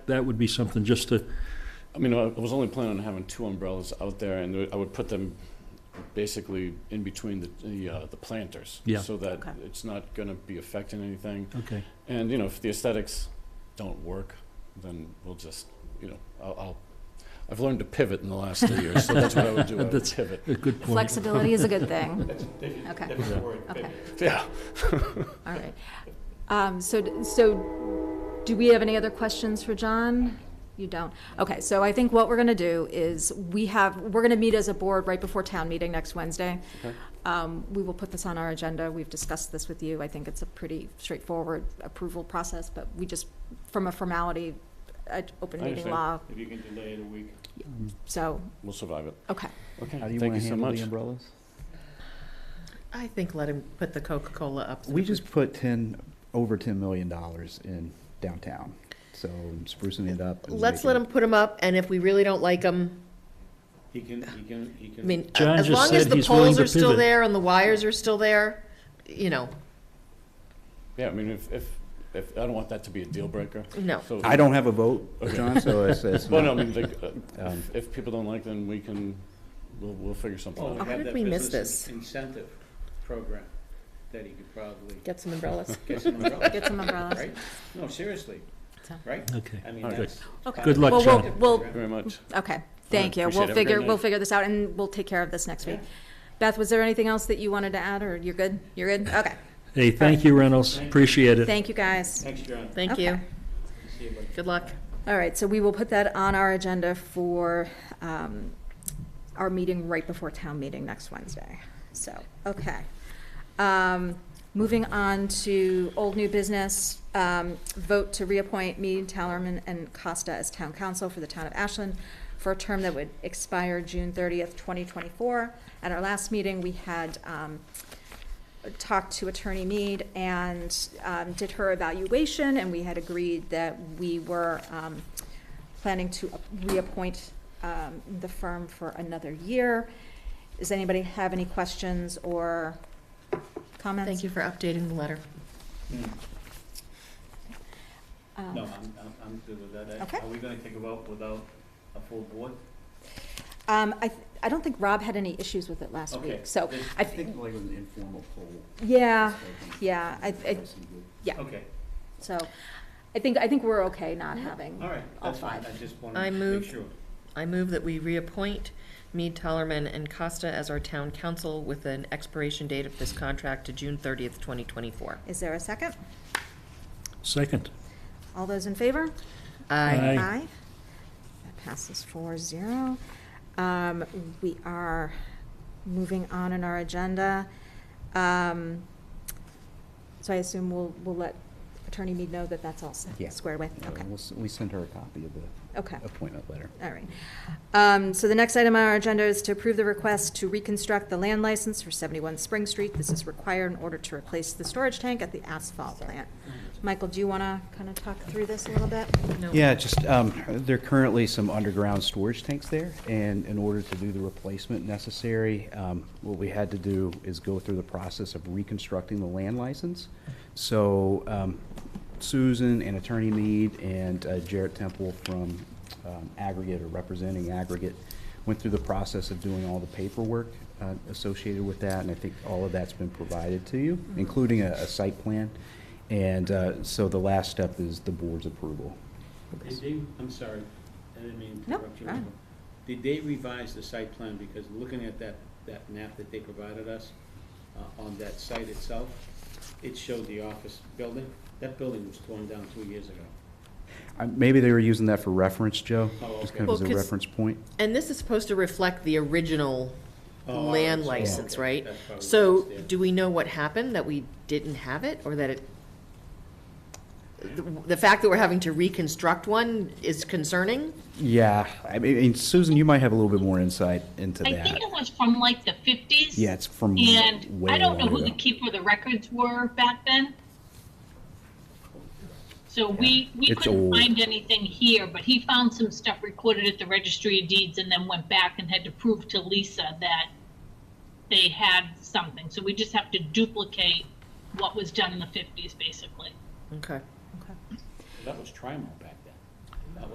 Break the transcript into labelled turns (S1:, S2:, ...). S1: that would be something just to,
S2: I mean, I I was only planning on having two umbrellas out there, and I would put them basically in between the, the, uh, the planters.
S1: Yeah.
S2: So that
S3: Okay.
S2: it's not gonna be affecting anything.
S1: okay.
S2: And, you know, if the aesthetics don't work, then we'll just, you know, I'll, I'll, I've learned to pivot in the last three years, so that's what I would do, I would
S1: That's-
S2: pivot.
S1: A good point.
S3: Flexibility is a good thing. Okay, okay,
S2: Yeah.
S3: all right. Um, So, d- so do we have any other questions for John? You don't? Okay, so I think what we're going to do is we have, we're going to meet as a board right before town meeting next Wednesday.
S2: Okay.
S3: Um, We will put this on our agenda. We've discussed this with you. I think it's a pretty straightforward approval process, but we just, from a formality, uh, open
S2: I
S3: meeting
S2: understand.
S3: law,
S4: If you can delay it a week.
S3: so,
S2: We'll survive it.
S3: okay.
S2: Okay,
S5: How do you
S2: thank
S5: want
S2: you so
S5: to handle the
S2: much.
S5: umbrellas?
S6: I think let him put the Coca-Cola up. so
S5: We
S6: that
S5: just put ten, over ten million dollars in downtown, so sprucing it up. and
S6: Let's let
S5: making-
S6: him put them up, and if we really don't like them,
S4: He can, he can, he
S6: I
S4: can.
S6: mean,
S1: John
S6: as
S1: just
S6: long as
S1: said
S6: the
S1: he's willing
S6: poles
S1: to
S6: are still
S1: pivot.
S6: there and the wires are still there, you know,
S2: Yeah, I mean, if, if, if, I don't want that to be a deal breaker.
S6: no.
S2: So-
S5: I don't have a vote, John, so it's, it's
S2: Well, no,
S5: not-
S2: I mean, like, uh,
S5: Um,
S2: if- if people don't like, then we can, we'll, we'll figure something
S4: Well, Oh, we
S2: out.
S6: How
S4: have
S6: did
S4: that
S6: we miss
S4: business
S6: this?
S4: Incentive program that he could probably
S6: Get some umbrellas.
S4: get some umbrellas,
S3: Get some umbrellas.
S4: right? No, seriously,
S3: So-
S4: right?
S1: Okay.
S4: I mean,
S2: All right.
S4: that's.
S3: Okay.
S1: Good luck,
S3: Well, we'll-
S1: John.
S3: We'll,
S2: Very much.
S3: Okay, thank
S2: appreciate it.
S3: you. We'll
S2: Have a great
S3: figure, we'll
S2: night.
S3: figure this out, and we'll take care of this next week. Beth, was there anything else that you wanted to add, or you're good? You're good? Okay.
S1: Hey, thank you, Reynolds. Appreciate it.
S3: Thank you, guys.
S4: Thanks, John.
S6: Thank
S3: Okay.
S6: you.
S4: See you, bud.
S6: Good luck.
S3: All right, so we will put that on our agenda for um, our meeting right before town meeting next Wednesday. So, okay. Um, Moving on to old new business, um, vote to reappoint me, Tallerman, and Costa as town council for the town of Ashland for a term that would expire June 30th, 2024. At our last meeting, we had um, talked to Attorney Mead and um, did her evaluation, and we had agreed that we were um, planning to reappoint um, the firm for another year. Does anybody have any questions or comments?
S6: Thank you for updating the letter.
S4: Hmm.
S3: Um,
S4: No, I'm, I'm, I'm good with that.
S3: Okay.
S4: Are we gonna take a vote without a full board?
S3: Um, I, th- I don't think Rob had any issues with it last
S4: Okay.
S3: week, so,
S4: Then-
S3: I
S5: I
S3: thi-
S5: think like it was an informal poll.
S3: yeah,
S5: so I think-
S3: yeah, I- I-
S5: that's some good-
S4: Okay,
S3: so, I think, I think we're okay not having.
S4: all right,
S3: All
S4: that's fine,
S3: five.
S4: I just
S6: I
S4: wanted to
S6: move-
S4: make sure.
S6: I move that we reappoint Mead, Tellerman, and Costa as our town council with an expiration date of this contract to June thirtieth, twenty twenty-four.
S3: Is there a second?
S1: Second.
S3: All those in favor?
S1: Aye.
S3: Aye. That passes four zero. Um, we are moving on in our agenda. Um, so I assume we'll, we'll let Attorney Mead know that that's all s-
S5: Yeah.
S3: squared away,
S5: Yeah,
S3: okay,
S5: we'll s- We sent her a copy of the
S3: okay.
S5: appointment letter.
S3: All right. Um, So the next item on our agenda is to approve the request to reconstruct the land license for 71 Spring Street. This is required in order to replace the storage tank at the asphalt plant. Michael, do you want to kind of talk through this a little bit?
S6: No.
S5: Yeah, just, um, there are currently some underground storage tanks there, and in order to do the replacement necessary, um, what we had to do is go through the process of reconstructing the land license. So, um, Susan and Attorney Mead and uh, Jarrett Temple from, um, Aggregate or representing Aggregate went through the process of doing all the paperwork, uh, associated with that, and I think all of that's been provided to you, including a, a site plan. And, uh, so the last step is the board's approval.
S4: Did they, I'm sorry, I didn't mean to
S3: No,
S4: interrupt you.
S3: fine.
S4: Did they revise the site plan, because looking at that, that map that they provided us, uh, on that site itself, it showed the office building, that building was torn down two years ago.
S5: Uh, Maybe they were using that for reference, Joe,
S4: Oh,
S5: just
S4: okay.
S5: kind of
S6: Well,
S5: as a
S6: 'cause-
S5: reference point.
S6: And this is supposed to reflect the original
S4: Oh,
S6: land
S4: okay,
S6: license,
S4: okay,
S6: right?
S4: that's probably
S6: So,
S4: what it is, yeah.
S6: do we know what happened, that we didn't have it, or that it, the- the fact that we're having to reconstruct one is concerning?
S5: Yeah, I mean, and Susan, you might have a little bit more insight into
S7: I think
S5: that.
S7: it was from like the fifties.
S5: Yeah, it's from
S7: And
S5: way
S7: I don't know
S5: long
S7: who the
S5: ago.
S7: keeper of the records were back then. So we, we
S5: it's
S7: couldn't
S5: old.
S7: find anything here, but he found some stuff recorded at the registry of deeds and then went back and had to prove to Lisa that they had something. So we just have to duplicate what was done in the fifties, basically.
S6: Okay.
S4: That was Trimo.